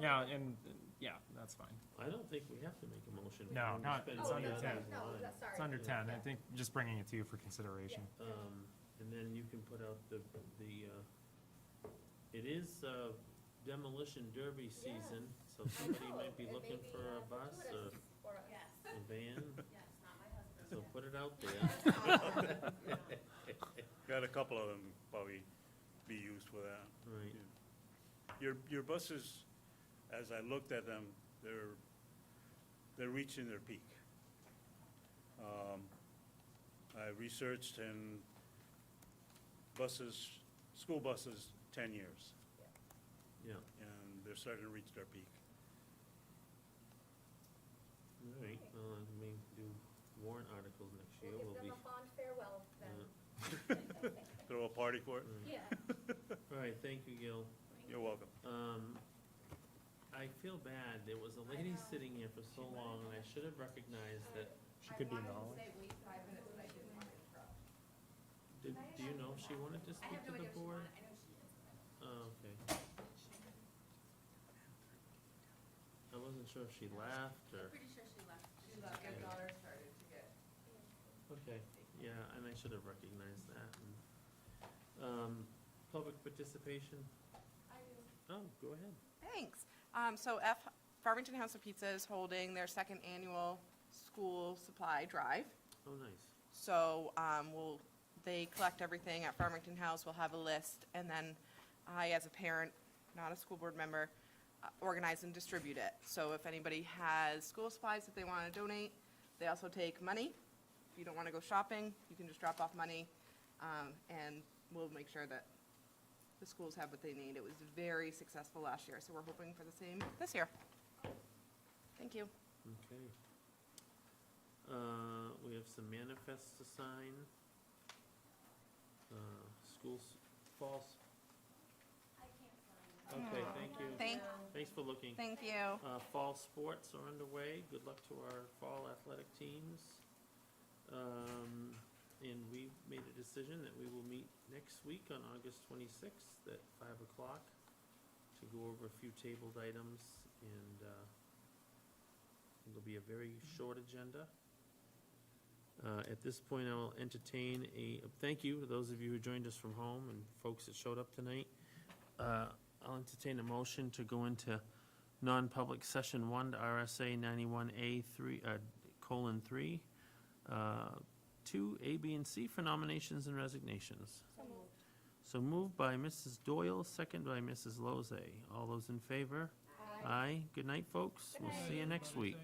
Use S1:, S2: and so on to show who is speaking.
S1: No, and, and, yeah, that's fine.
S2: I don't think we have to make a motion.
S1: No,
S2: We're gonna
S1: not-
S2: spend
S1: it's under
S2: money out of
S1: 10.
S2: the
S3: Oh, No,
S2: line.
S3: that's- sorry.
S1: It's under ten, I
S3: Yeah.
S1: think just bringing it to you for consideration.
S2: Um, and then you can put out the, the, uh, it is, uh, demolition derby season, so
S3: I
S2: somebody
S3: know,
S2: might be
S3: it may
S2: looking
S3: be,
S2: for
S3: uh,
S2: a bus or
S3: fortuitous for us.
S4: Yes,
S2: a van,
S4: yes, not my husband.
S2: so put it out there.
S5: Got a couple of them probably be used for that.
S2: Right,
S5: Your, your buses, as I looked at them, they're, they're reaching their peak. Um, I researched and buses, school buses, ten years,
S2: yeah,
S5: and they're starting to reach their peak.
S2: all right, well, I mean, do warrant articles next year,
S3: We'll
S2: we'll
S3: give
S2: be.
S3: them a fond farewell then.
S5: Throw a party for it?
S3: Yeah.
S2: All right, thank you, Gil.
S5: You're welcome.
S2: Um, I feel bad, there was a lady
S4: know.
S2: sitting here for so long, and I should have recognized that,
S1: She could be in the
S4: I
S1: hallway.
S4: wanted to stay wait five minutes, but I didn't want to interrupt.
S2: did, do you know if she wanted to
S4: I
S2: speak
S4: have
S2: to
S4: no
S2: the
S4: idea if she
S2: board?
S4: wanted, I know she is, but I don't-
S2: Oh, okay, I wasn't sure if she laughed
S4: I'm
S2: or,
S4: pretty sure she left.
S6: She left, her daughter started to get
S2: okay, yeah, and I should have recognized that. and, Um, public participation,
S4: I do.
S2: oh, go ahead.
S7: Thanks. Um, So F, Farmington House of Pizza is holding their second annual school supply drive.
S2: Oh, nice,
S7: So um, we'll, they collect everything at Farmington House, we'll have a list, and then I, as a parent, not a school board member, uh, organize and distribute it. So if anybody has school supplies that they want to donate, they also take money. If you don't want to go shopping, you can just drop off money, um, and we'll make sure that the schools have what they need. It was very successful last year, so we're hoping for the same this year. Thank you.
S2: okay. Uh, we have some manifests to sign. Uh, schools, false,
S4: I can't find it.
S2: okay,
S7: Aw.
S2: thank you,
S7: Thank,
S2: thanks for looking.
S7: thank you.
S2: Uh, fall sports are underway. Good luck to our fall athletic teams. Um, and we made a decision that we will meet next week on August twenty-sixth at five o'clock to go over a few tabled items and, uh, it'll be a very short agenda. Uh, at this point, I will entertain a, thank you to those of you who joined us from home and folks that showed up tonight. Uh, I'll entertain a motion to go into non-public session one to RSA ninety-one A three, uh, colon three. uh, Two, A, B, and C for nominations and resignations. So moved by Mrs. Doyle, second by Mrs. Lozay. All those in favor? Aye. Good night, folks. We'll see you next week.